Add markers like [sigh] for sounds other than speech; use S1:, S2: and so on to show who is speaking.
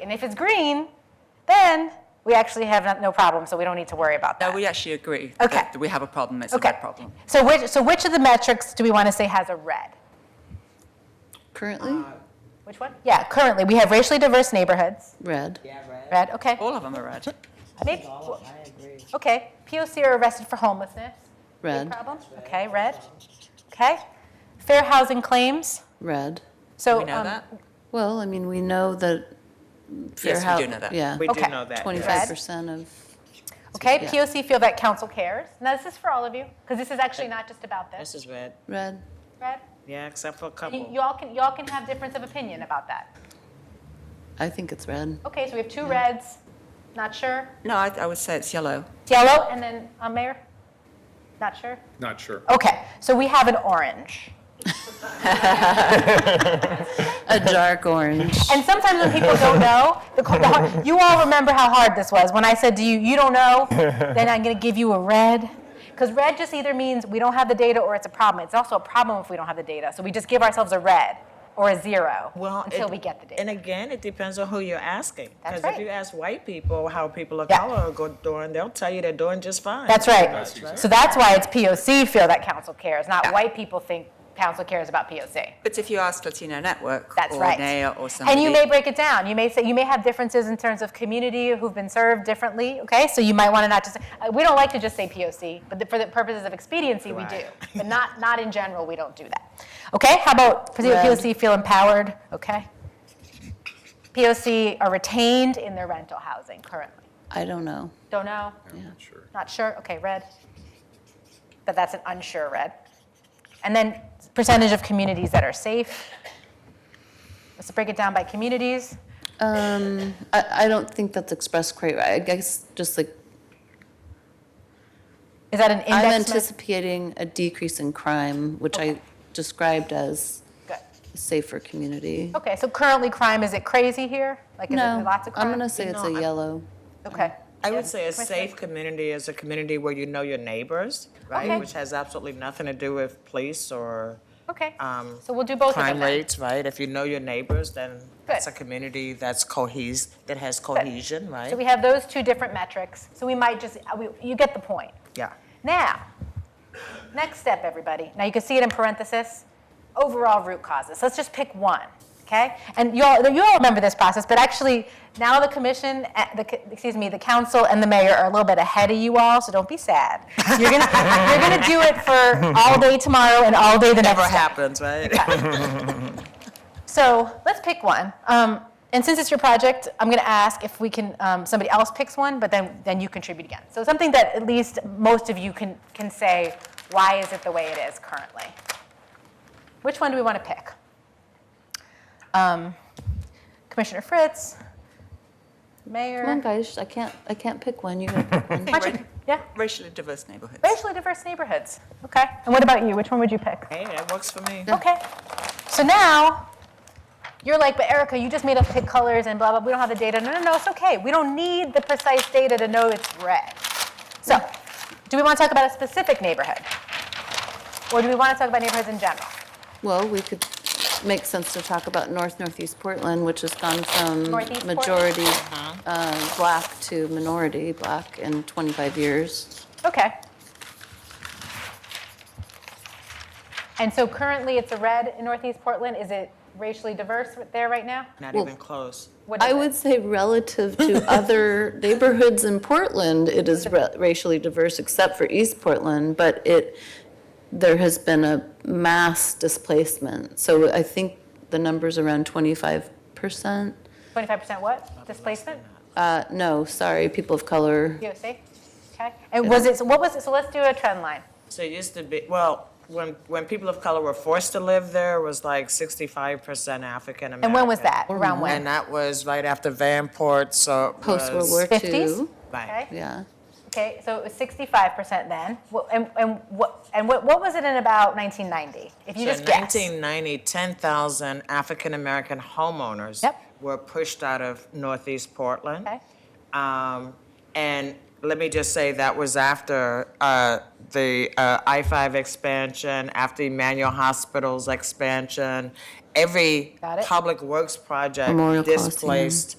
S1: And if it's green, then we actually have no- no problem, so we don't need to worry about that.
S2: No, we actually agree.
S1: Okay.
S2: that We have a problem, it's a
S1: Okay.
S2: bad problem.
S1: So which, so which of the metrics do we want to say has a red?
S3: Currently,
S1: Which one? Yeah, currently, we have racially diverse neighborhoods,
S3: red.
S4: Yeah, right.
S1: red, okay.
S2: All of them are red.
S1: Maybe-
S4: I agree.
S1: Okay, POC are arrested for homelessness. Big
S3: Red.
S1: Problem, okay, red, okay. Fair housing claims,
S3: Red.
S1: so.
S2: We know
S1: um,
S2: that?
S3: Well, I mean, we know that fair
S2: Yes, we
S3: hou-
S2: do know that.
S3: Yeah,
S5: We do
S1: Okay.
S5: know that. yes.
S3: twenty-five percent of,
S1: Okay,
S3: Yeah.
S1: POC feel that council cares. Now, this is for all of you, because this is actually not just about
S4: This
S1: this,
S4: is red.
S3: red.
S1: Red.
S5: Yeah, except for a
S1: You
S5: couple.
S1: you all can, you all can have difference of opinion about that.
S3: I think it's red.
S1: Okay, so we have two reds, not sure.
S2: No, I, I would say it's yellow.
S1: It's yellow, and then, uh, Mayor? Not sure?
S6: Not sure.
S1: Okay, so we have an orange.
S3: A dark orange.
S1: And sometimes when people [laughs] don't know, the, co- the, har- you all remember how hard this was. When I said to you, you don't [laughs] know, then I'm going to give you a red. Because red just either means we don't have the data or it's a problem. It's also a problem if we don't have the data. So we just give ourselves a red or a zero
S5: Well,
S1: until
S5: it-
S1: we get the data.
S5: And again, it depends on who you're asking.
S1: That's
S5: Because
S1: right.
S5: if you ask white people how people of
S1: Yeah.
S5: color are go- doing, they'll tell you they're doing just fine.
S1: That's right.
S6: That's right.
S1: So that's why it's POC feel that council cares, not
S2: Yeah.
S1: white people think council cares about POC.
S2: But if you ask Latino Network
S1: That's
S2: or
S1: right.
S2: NEA or
S1: and
S2: somebody.
S1: you may break it down. You may say you may have differences in terms of community who've been served differently. Okay, so you might want to not just. Uh, we don't like to just say POC, but the, for the purposes of expediency, we
S2: [laughs]
S1: do. But not not in general, we don't do that. Okay, how about
S3: Red.
S1: POC feel empowered? Okay. POC are retained in their rental housing currently.
S3: [laughs] I don't know.
S1: Don't know.
S6: I'm not sure.
S1: Not sure? Okay, red. But that's an unsure red. And then percentage of communities that are safe. Let's break it down by communities.
S3: Um, I, I don't think that's expressed quite right. I guess just like,
S1: Is that an index?
S3: I'm
S1: mes-
S3: anticipating a decrease in crime, which I described as
S1: Good.
S3: a safer community.
S1: Okay, so currently crime, is it crazy here? Like, is
S3: No,
S1: it lots of crime?
S3: I'm gonna say it's a
S5: No, I-
S3: yellow.
S1: Okay,
S5: I would say a
S1: Commissioner?
S5: safe community is a community where you know your neighbors, right?
S1: Okay.
S5: Which has absolutely nothing to do with police or
S1: okay.
S5: Um,
S1: So we'll do both of them
S5: crime
S1: then.
S5: rates, right? If you know your neighbors, then that's a
S1: Good.
S5: community that's cohes that has cohesion,
S1: So we
S5: right?
S1: have those two different metrics. So we might just, uh, we- you get the point.
S5: Yeah.
S1: Now, next step, everybody. Now you can see it in parenthesis. Overall root causes. Let's just pick one, okay? And you all, you all remember this process, but actually now the commission, eh, the, co- excuse me, the council and the mayor are a little bit ahead of you all, so don't be sad. You're gonna, [laughs] you're gonna do it for all day tomorrow and all day the next.
S5: Never
S1: day.
S5: happens, right?
S1: So let's pick one. Um, and since it's your project, I'm going to ask if we can, um, somebody else picks one, but then, then you contribute again. So something that at least most of you can, can say, why is it the way it is currently? Which one do we want to pick? Um, Commissioner Fritz, Mayor.
S3: Come on, guys, I can't, I can't pick one. You gotta pick one.
S1: Why don't you- yeah,
S2: Racially diverse neighborhoods.
S1: racially diverse neighborhoods. Okay. And what about you? Which one would you pick?
S5: Hey, that works for me.
S1: [laughs] Okay. So now, you're like, but Erica, you just made us pick colors and blah, blah, we don't have the data. No, no, no, it's okay. We don't need the precise data to know it's red. So, do we want to talk about a specific neighborhood? Or do we want to talk about neighborhoods in general?
S3: Well, we could make sense to talk about North Northeast Portland, which has gone from
S1: Northeast Portland? Uh-huh.
S3: majority uh, black to minority black in 25 years.
S1: Okay. And so currently it's a red in Northeast Portland. Is it racially diverse there right now?
S5: Not
S3: Well-
S5: even close.
S1: What is
S3: I
S1: it?
S3: would say relative
S1: [laughs]
S3: to other neighborhoods in Portland, it is ra- racially diverse except for East Portland, but it, there has been a mass displacement. So I think the number's around 25%.
S1: 25% what? Displacement?
S3: Uh, No, sorry, people of color.
S1: POC? Okay. And was it, so what was it? So let's do a trend line.
S5: So it used to be, well, when, when people of color were forced to live there, it was like 65% African American.
S1: And when was that? Around
S5: And
S1: when?
S5: that was right after Vanport, so. it
S3: Post-World
S5: was-
S3: War II.
S1: 50s?
S5: Right.
S1: Okay,
S3: Yeah.
S1: okay, so it was sixty-five percent then, Wha- and, and what, and what, what was it in about nineteen ninety? If you
S5: So
S1: just guess.
S5: 1990, 10,000 African American homeowners
S1: Yep.
S5: were pushed out of Northeast Portland.
S1: Okay.
S5: Um, and let me just say that was after uh, the uh, I 5 expansion, after Emmanuel Hospital's expansion. Every
S1: Got it.
S5: public works project
S3: Memorial Coliseum.
S5: displaced